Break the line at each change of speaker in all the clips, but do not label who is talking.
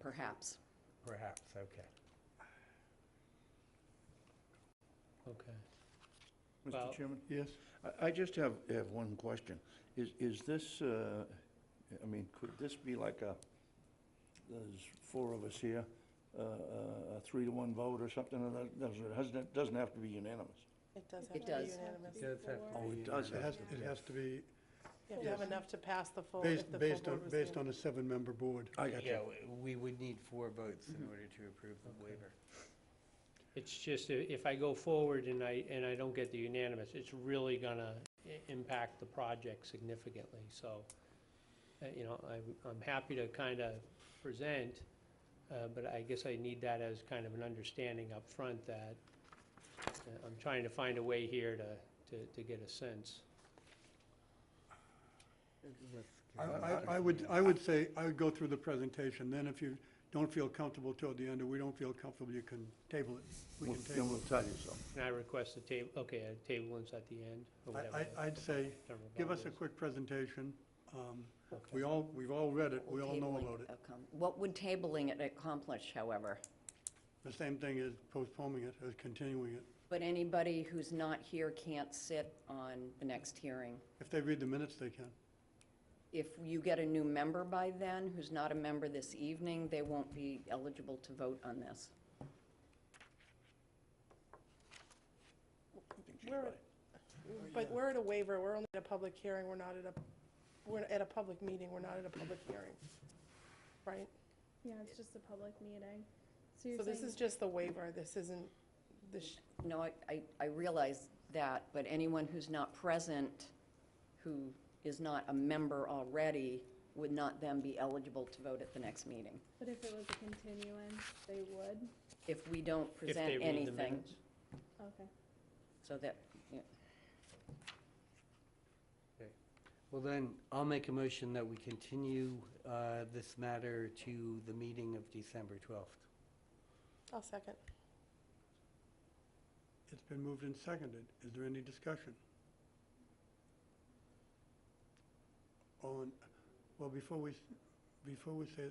perhaps.
Perhaps, okay. Okay. Well-
Mr. Chairman?
Yes,
I- I just have, have one question. Is, is this, uh, I mean, could this be like a, there's four of us here, uh, uh, a three to one vote or something, or that doesn't, it hasn't, it doesn't have to be unanimous?
It does have
It
to be
does.
unanimous.
It does have to
Oh, it
be
does
it
have
has,
to
it has to be
You have to have enough to pass the full, if
based,
the full
based on,
board was
based
in.
on a seven-member board.
I got
Yeah,
you.
w- we would need four votes in order to approve the waiver.
It's just, i- if I go forward and I, and I don't get the unanimous, it's really gonna i- impact the project significantly, so, uh, you know, I'm, I'm happy to kind of present, uh, but I guess I need that as kind of an understanding up front that uh, I'm trying to find a way here to, to, to get a sense.
I, I, I would, I would say, I would go through the presentation, then if you don't feel comfortable toward the end, or we don't feel comfortable, you can table it. We
We'll-
can
Then
table
we'll
it.
tell you so.
Can I request a table, okay, a table is at the end, or whatever.
I, I, I'd say,
whatever
give
bond
us a
is.
quick presentation. Um, We all, we've all read it, we all know
Tabling
about it.
outcome. What would tabling it accomplish, however?
The same thing as postponing it, as continuing it.
But anybody who's not here can't sit on the next hearing.
If they read the minutes, they can.
If you get a new member by then, who's not a member this evening, they won't be eligible to vote on this.
We're- But we're at a waiver, we're only at a public hearing, we're not at a, we're at a public meeting, we're not at a public hearing, right?
Yeah, it's just a public meeting. So
So
you're
this is
saying,
just the waiver, this isn't, this,
No, I, I, I realize that, but anyone who's not present, who is not a member already, would not then be eligible to vote at the next meeting,
but if it was a continuance, they would?
if we don't
If they
present
read the
anything.
minutes.
Okay.
So that, yeah.
Well, then, I'll make a motion that we continue uh, this matter to the meeting of December 12th.
I'll second.
It's been moved and seconded. Is there any discussion? All in, well, before we, s- before we say,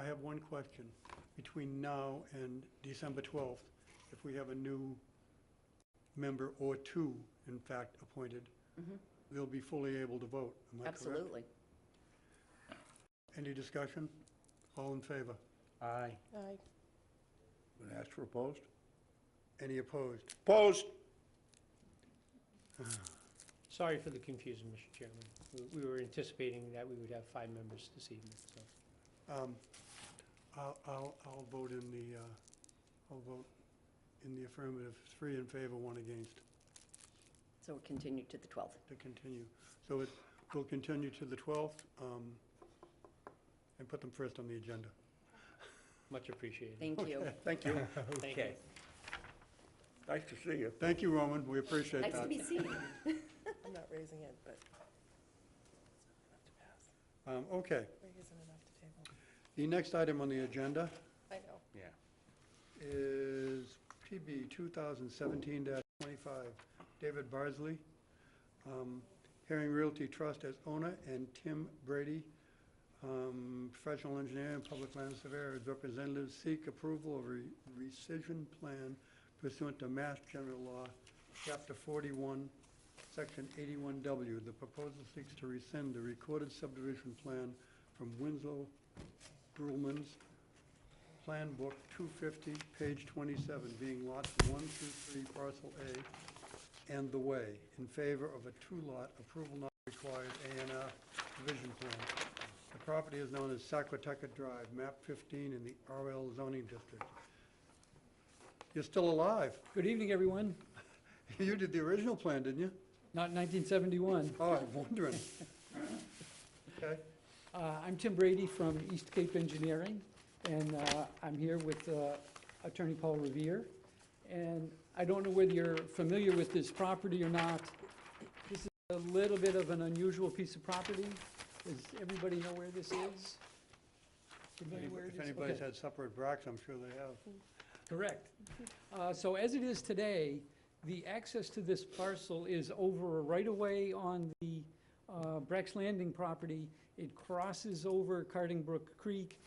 I have one question. Between now and December 12th, if we have a new member or two, in fact, appointed, they'll be fully able to vote. Am I correct?
absolutely.
Any discussion? All in favor?
Aye.
Aye.
Going to ask for opposed?
Any opposed?
Opposed?
Sorry for the confusion, Mr. Chairman. We- We were anticipating that we would have five members this evening, so.
Um, I'll, I'll, I'll vote in the, uh, I'll vote in the affirmative, three in favor, one against,
So it continued to the 12th.
to continue. So it, we'll continue to the 12th, um, and put them first on the agenda.
Much appreciated.
Thank you.
Thank you.
Thank you.
Okay.
Nice to see you.
Thank you, Roman, we appreciate
Nice to
that.
be seen.
I'm not raising it, but.
Um, Okay,
There isn't enough to table.
the next item on the agenda
I know.
Yeah.
is PB 2017-25, David Barsley, um, Herring Realty Trust as owner, and Tim Brady, um, professional engineer and public land surveyor, as representatives, seek approval of re- rescission plan pursuant to Mass General Law, Chapter 41, Section 81W. The proposal seeks to rescind the recorded subdivision plan from Winslow Grumman's Plan Book 250, page 27, being lots 1 through 3, parcel A, and the way, in favor of a two-lot approval not required A and R division plan. The property is known as Saquotucket Drive, map 15 in the RL zoning district. You're still alive.
Good evening, everyone.
You did the original plan, didn't you?
Not 1971.
Oh, I'm wondering. Okay,
Uh, I'm Tim Brady from East Cape Engineering, and uh, I'm here with uh, Attorney Paul Revere. And I don't know whether you're familiar with this property or not. This is a little bit of an unusual piece of property. Does everybody know where this is? Familiar where it
if
is?
anybody's
Okay.
had supper at Brock's, I'm sure they have.
Correct. Uh, So as it is today, the access to this parcel is over a right-of-way on the uh, Breck's Landing property. It crosses over Cardingbrook Creek